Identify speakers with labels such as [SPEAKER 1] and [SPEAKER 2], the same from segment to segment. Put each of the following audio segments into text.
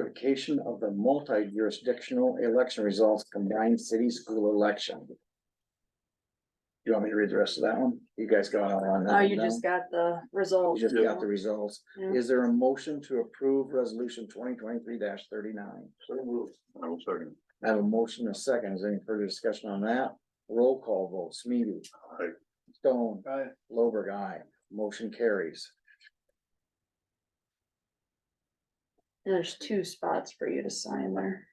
[SPEAKER 1] certification of the multi-jurisdictional election results combined city school election. You want me to read the rest of that one? You guys got all on that?
[SPEAKER 2] Oh, you
[SPEAKER 1] one
[SPEAKER 2] just
[SPEAKER 1] down?
[SPEAKER 2] got the
[SPEAKER 1] You
[SPEAKER 2] result.
[SPEAKER 1] just got the results.
[SPEAKER 2] Yeah.
[SPEAKER 1] Is there a motion to approve resolution twenty twenty-three thirty-nine?
[SPEAKER 3] I will second.
[SPEAKER 1] I have a motion and a second. Is there any further discussion on that? Roll call vote, Smeedy.
[SPEAKER 3] Aye.
[SPEAKER 1] Stone,
[SPEAKER 3] Aye.
[SPEAKER 1] Lowberg, aye. Motion carries.
[SPEAKER 2] There's two spots for you to sign there.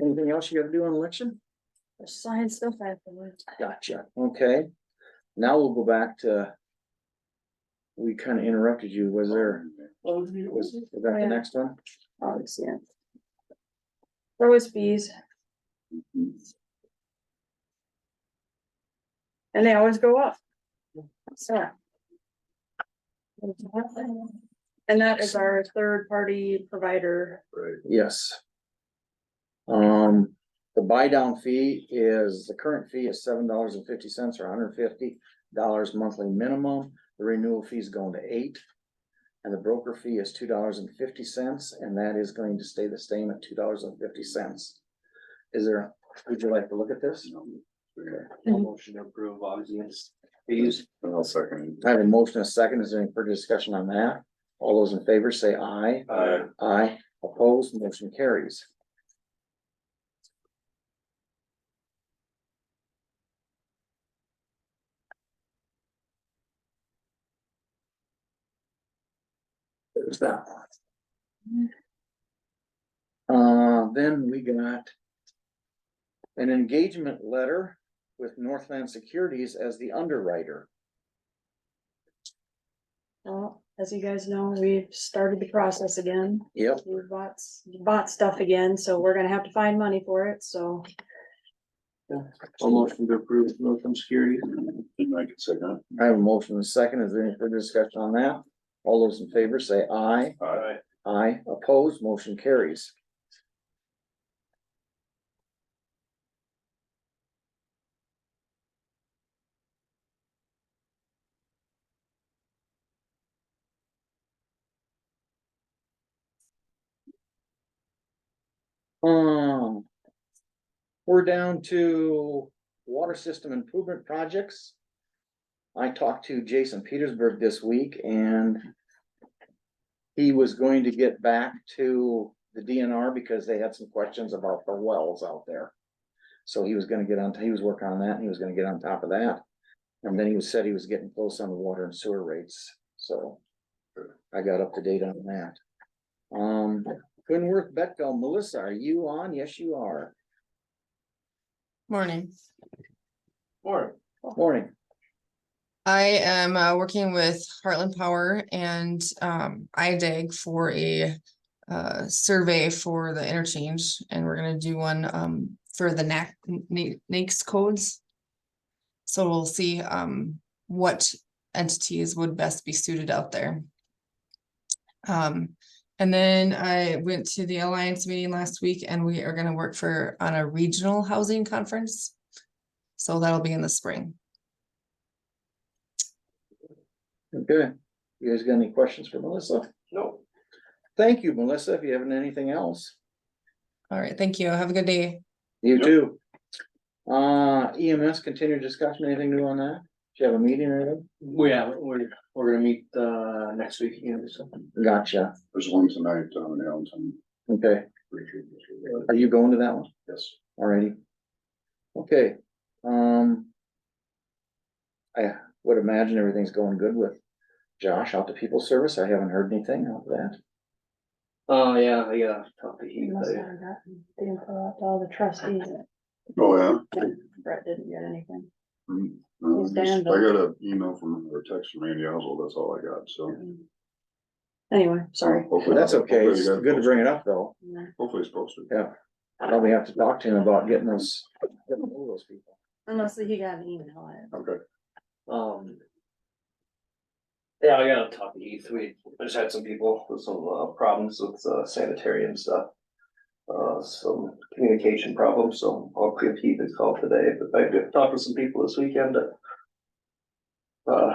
[SPEAKER 1] Anything else you gotta do on election?
[SPEAKER 2] There's sign stuff afterwards.
[SPEAKER 1] Gotcha, okay. Now we'll go back to. We kind of interrupted you, was there, was was that the
[SPEAKER 2] Yeah.
[SPEAKER 1] next one?
[SPEAKER 2] Obviously. yeah. There was fees. And they always go up. So. And that is our third party provider.
[SPEAKER 3] Right.
[SPEAKER 1] Yes. Um, the buy down fee is, the current fee is seven dollars and fifty cents or hundred and fifty dollars monthly minimum. The renewal fee is going to eight. And the broker fee is two dollars and fifty cents, and that is going to stay the same at two dollars and fifty cents. Is there, would you like to look at this?
[SPEAKER 2] Mhm.
[SPEAKER 4] Motion to approve, obviously, it's fees.
[SPEAKER 3] I'll second.
[SPEAKER 1] I have a motion, and a second. Is there any further discussion on that? All those in favor say aye.
[SPEAKER 4] Uh,
[SPEAKER 1] Aye. Opposed, motion carries. There's that one. Uh, then we got an engagement letter with Northland Securities as the underwriter.
[SPEAKER 2] Well, as you guys know, we've started the process again.
[SPEAKER 1] Yep,
[SPEAKER 2] We bought, s- bought stuff again, so we're gonna have to find money for it, so.
[SPEAKER 4] a motion to approve, Northland Security.
[SPEAKER 3] And I can second.
[SPEAKER 1] I have a motion and a second. Is there any further discussion on that? All those in favor say aye.
[SPEAKER 3] Aye.
[SPEAKER 1] Aye. Opposed, motion carries. Um. We're down to water system improvement projects. I talked to Jason Petersburg this week and he was going to get back to the DNR because they had some questions about the wells out there. So he was gonna get on, he was working on that, and he was gonna get on top of that. And then he was, said he was getting close on the water and sewer rates, so I got up to date on that. Um, Gunworth Betco, Melissa, are you on? Yes, you are.
[SPEAKER 5] Morning.
[SPEAKER 4] Or.
[SPEAKER 1] Morning.
[SPEAKER 5] I am uh, working with Heartland Power and um, IDAG for a uh, survey for the interchange, and we're gonna do one um, for the NAC, N- NAICS codes. So we'll see um, what entities would best be suited out there. Um, and then I went to the Alliance meeting last week, and we are gonna work for, on a regional housing conference. So that'll be in the spring.
[SPEAKER 1] Good. You guys got any questions for Melissa?
[SPEAKER 4] No.
[SPEAKER 1] Thank you, Melissa. If you haven't anything else.
[SPEAKER 5] All right, thank you. Have a good day.
[SPEAKER 1] You
[SPEAKER 3] Yep.
[SPEAKER 1] too. Uh, EMS, continued discussion, anything new on that? Do you have a meeting or anything?
[SPEAKER 4] We have, we're, we're gonna meet, uh, next week, you know, something.
[SPEAKER 1] Gotcha,
[SPEAKER 3] There's one tonight uh, down in Allentown.
[SPEAKER 1] okay, are you going to that one
[SPEAKER 3] Yes.
[SPEAKER 1] already? Okay, um. I would imagine everything's going good with Josh out to people service, I haven't heard anything of that.
[SPEAKER 4] Oh, yeah, I gotta talk to
[SPEAKER 2] He
[SPEAKER 4] Heath.
[SPEAKER 2] must
[SPEAKER 4] I-
[SPEAKER 2] have gotten the info out to all the trustees.
[SPEAKER 3] Oh, yeah.
[SPEAKER 2] Brett didn't get anything.
[SPEAKER 3] Mm, no,
[SPEAKER 2] Who's
[SPEAKER 3] I just- I
[SPEAKER 2] Dan, though?
[SPEAKER 3] got an email from or text from Randy Oswald, that's all I got, so.
[SPEAKER 2] Anyway, sorry.
[SPEAKER 3] Hopefully-
[SPEAKER 1] That's okay,
[SPEAKER 3] hopefully
[SPEAKER 1] it's
[SPEAKER 3] you got
[SPEAKER 1] good to bring it up though,
[SPEAKER 3] Hopefully it's posted.
[SPEAKER 1] yeah, probably have to talk to him about getting those, getting all those people.
[SPEAKER 2] Unless he got an email. I-
[SPEAKER 3] Okay.
[SPEAKER 4] Um. Yeah, I gotta talk to Heath, we just had some people with some uh problems with uh, sanitary and stuff. Uh, some communication problems, E so I'll give Heath a call today, but I did talk to some people this weekend. uh, uh,